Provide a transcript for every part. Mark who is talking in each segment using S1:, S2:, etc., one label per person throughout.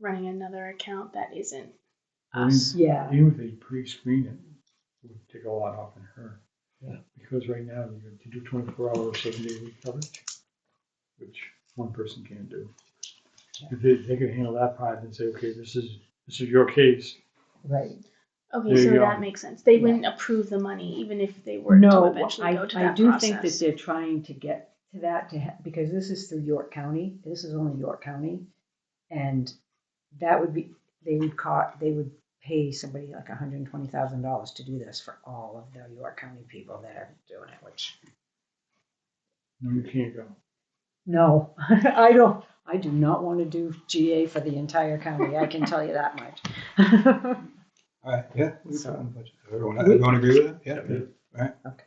S1: running another account that isn't
S2: Mm.
S1: us.
S3: Yeah.
S2: Even if they pre-screen it, it would take a lot off in her.
S4: Yeah.
S2: Because right now, you have to do twenty-four hour, seven day a week coverage, which one person can't do. If they, they can handle that part and say, okay, this is, this is your case,
S3: Right.
S1: Okay,
S2: There
S1: so
S2: you
S1: that
S2: go.
S1: makes sense. They
S3: Yeah.
S1: wouldn't approve the money even if they were to
S3: No,
S1: eventually
S3: I,
S1: go to
S3: I
S1: that
S3: do
S1: process.
S3: think that they're trying to get to that to, ha- because this is through York County, this is only York County. And that would be, they would caught, they would pay somebody like hundred and twenty thousand dollars to do this for all of the York County people that are doing it, which,
S2: no, you can't go.
S3: no, I don't, I do not want to do GA for the entire county, I can tell you that much.
S4: All right, yeah. we can
S3: So-
S4: put it on the budget. Everyone, everyone agree with that? Yeah.
S2: I think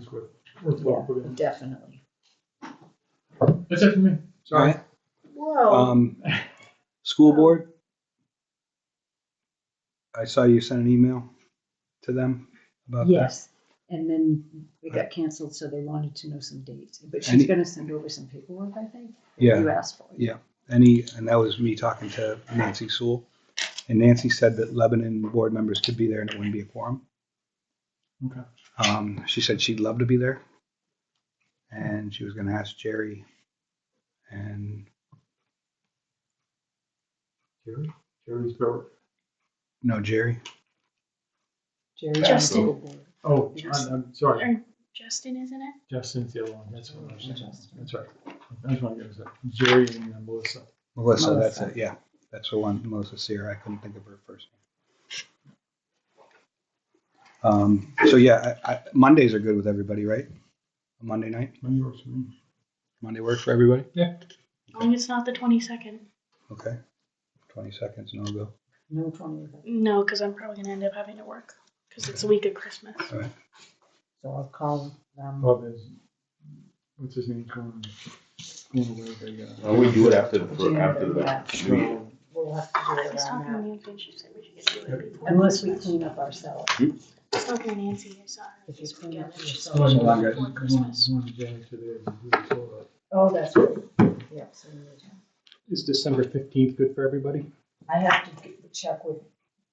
S2: it's worth,
S3: Yeah,
S2: worthwhile for them.
S3: Definitely.
S2: That's it for me.
S4: All
S2: Sorry.
S4: right,
S1: Whoa.
S4: um, school board? I saw you sent an email to them about that.
S3: Yes, and then it got canceled, so they wanted to know some dates, but
S4: Any-
S3: she's gonna send over some paperwork, I think. You
S4: Yeah,
S3: asked for it.
S4: Yeah. any, and that was me talking to Nancy Sewell. And Nancy said that Lebanon board members could be there and it wouldn't be a quorum.
S2: Okay.
S4: Um, she said she'd love to be there. And she was gonna ask Jerry and,
S2: Jerry, Jerry's Bill.
S4: no, Jerry,
S3: Jerry.
S1: Justin.
S2: Oh, I'm, I'm sorry,
S1: Or Justin, isn't it?
S2: Justin's the other one, that's what I was saying,
S3: Justin.
S2: that's right. I just want to get that, Jerry and uh, Melissa.
S4: Melissa, that's
S3: Melissa.
S4: it, yeah. That's the one, Melissa Sear, I couldn't think of her first. name. Um, so yeah, I, I, Mondays are good with everybody, right? Monday night,
S2: Money works for me.
S4: Monday work for everybody?
S1: As long as it's not the 22nd.
S4: Okay. Twenty seconds, no go.
S3: No twenty,
S1: No, because I'm probably going to end up having to work because it's a week of Christmas.
S3: so I'll call um, them.
S2: Bob is, what's his name, Cohen? Going away, they, uh,
S5: Well, we do it after, for,
S3: June,
S5: after the
S3: yeah.
S5: meeting.
S3: We'll have to do
S1: I
S3: it
S1: was talking to
S3: around that,
S1: Nancy and she said we should get to it before
S3: unless we
S1: Christmas.
S3: clean up ourselves.
S1: I was talking to Nancy, I saw her.
S3: If you clean up
S1: She said
S3: yourself.
S1: we should
S4: Well,
S1: do it
S4: I
S1: before
S2: One-
S1: Christmas.
S2: one day today, we do this all up.
S3: Oh, that's right, yeah, so we need to.
S6: Is December fifteenth good for everybody?
S3: I have to get- check with,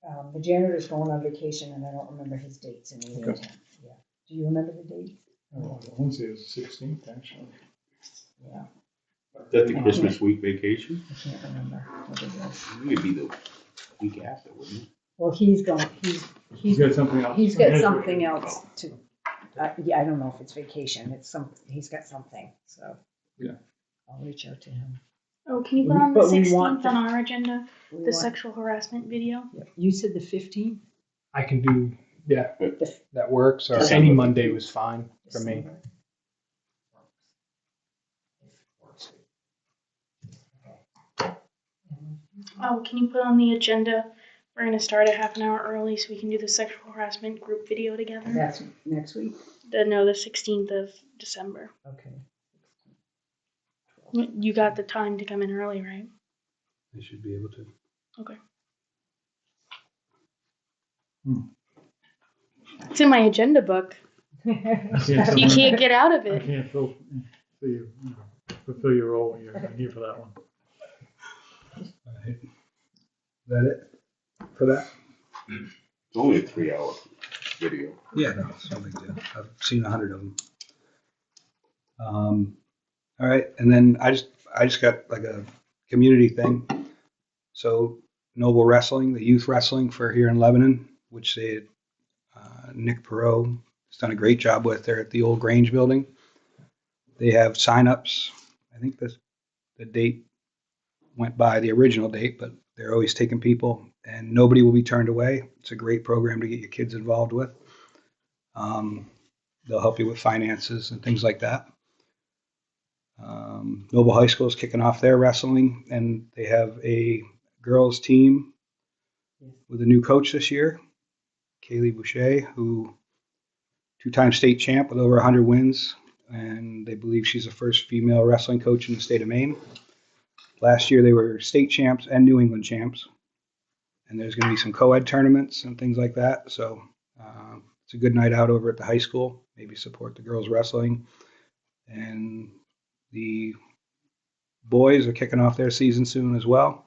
S3: um, the janitor's going on vacation and I don't remember his dates in the
S2: Okay.
S3: meantime, yeah. Do you remember the dates?
S2: Oh, I want to say it was sixteenth, actually.
S3: Yeah,
S5: That's the Christmas week vacation?
S3: I can't remember what it was.
S5: It would be the week after, wouldn't it?
S3: Well, he's going, he's,
S2: He's
S3: he's,
S2: got something else.
S3: he's got something else to, uh, yeah, I don't know if it's vacation, it's some, he's got something, so.
S2: Yeah.
S3: I'll reach out to him.
S1: Oh, can you put on the
S3: But we
S1: 16th
S3: want
S1: on our agenda?
S3: We
S1: The
S3: want-
S1: sexual harassment video?
S3: yeah, You said the fifteenth?
S6: I can do, yeah,
S4: That works, or?
S6: any Monday was fine for me.
S1: Oh, can you put on the agenda? We're going to start a half an hour early so we can do the sexual harassment group video together.
S3: That's next week,
S1: The, no, the 16th of December.
S3: okay.
S1: You got the time to come in early, right?
S4: They should be able to.
S1: It's in my agenda book. You can't get out of
S2: I
S1: it.
S2: can't fill, fill your, fulfill your role when you're here for that one.
S4: Alright. Is that it for that?
S5: It's only a three hour video.
S4: Yeah, no, it's no big deal. I've seen a hundred of them. Um, all right, and then I just I just got like a community thing. So Noble Wrestling, the youth wrestling for here in Lebanon, which they uh, Nick Perot has done a great job with. They're at the old Grange building. They have signups. I think this the date went by the original date, but they're always taking people, and nobody will be turned away. It's a great program to get your kids involved with. Um, they'll help you with finances and things like that. Um, Noble High School is kicking off their wrestling, and they have a girls' team with a new coach this year, Kaylee Boucher, who two-time state champ with over 100 wins, and they believe she's the first female wrestling coach in the state of Maine. Last year, they were state champs and New England champs, and there's going to be some co-ed tournaments and things like that. So um, it's a good night out over at the high school. Maybe support the girls wrestling. And the boys are kicking off their season soon as well.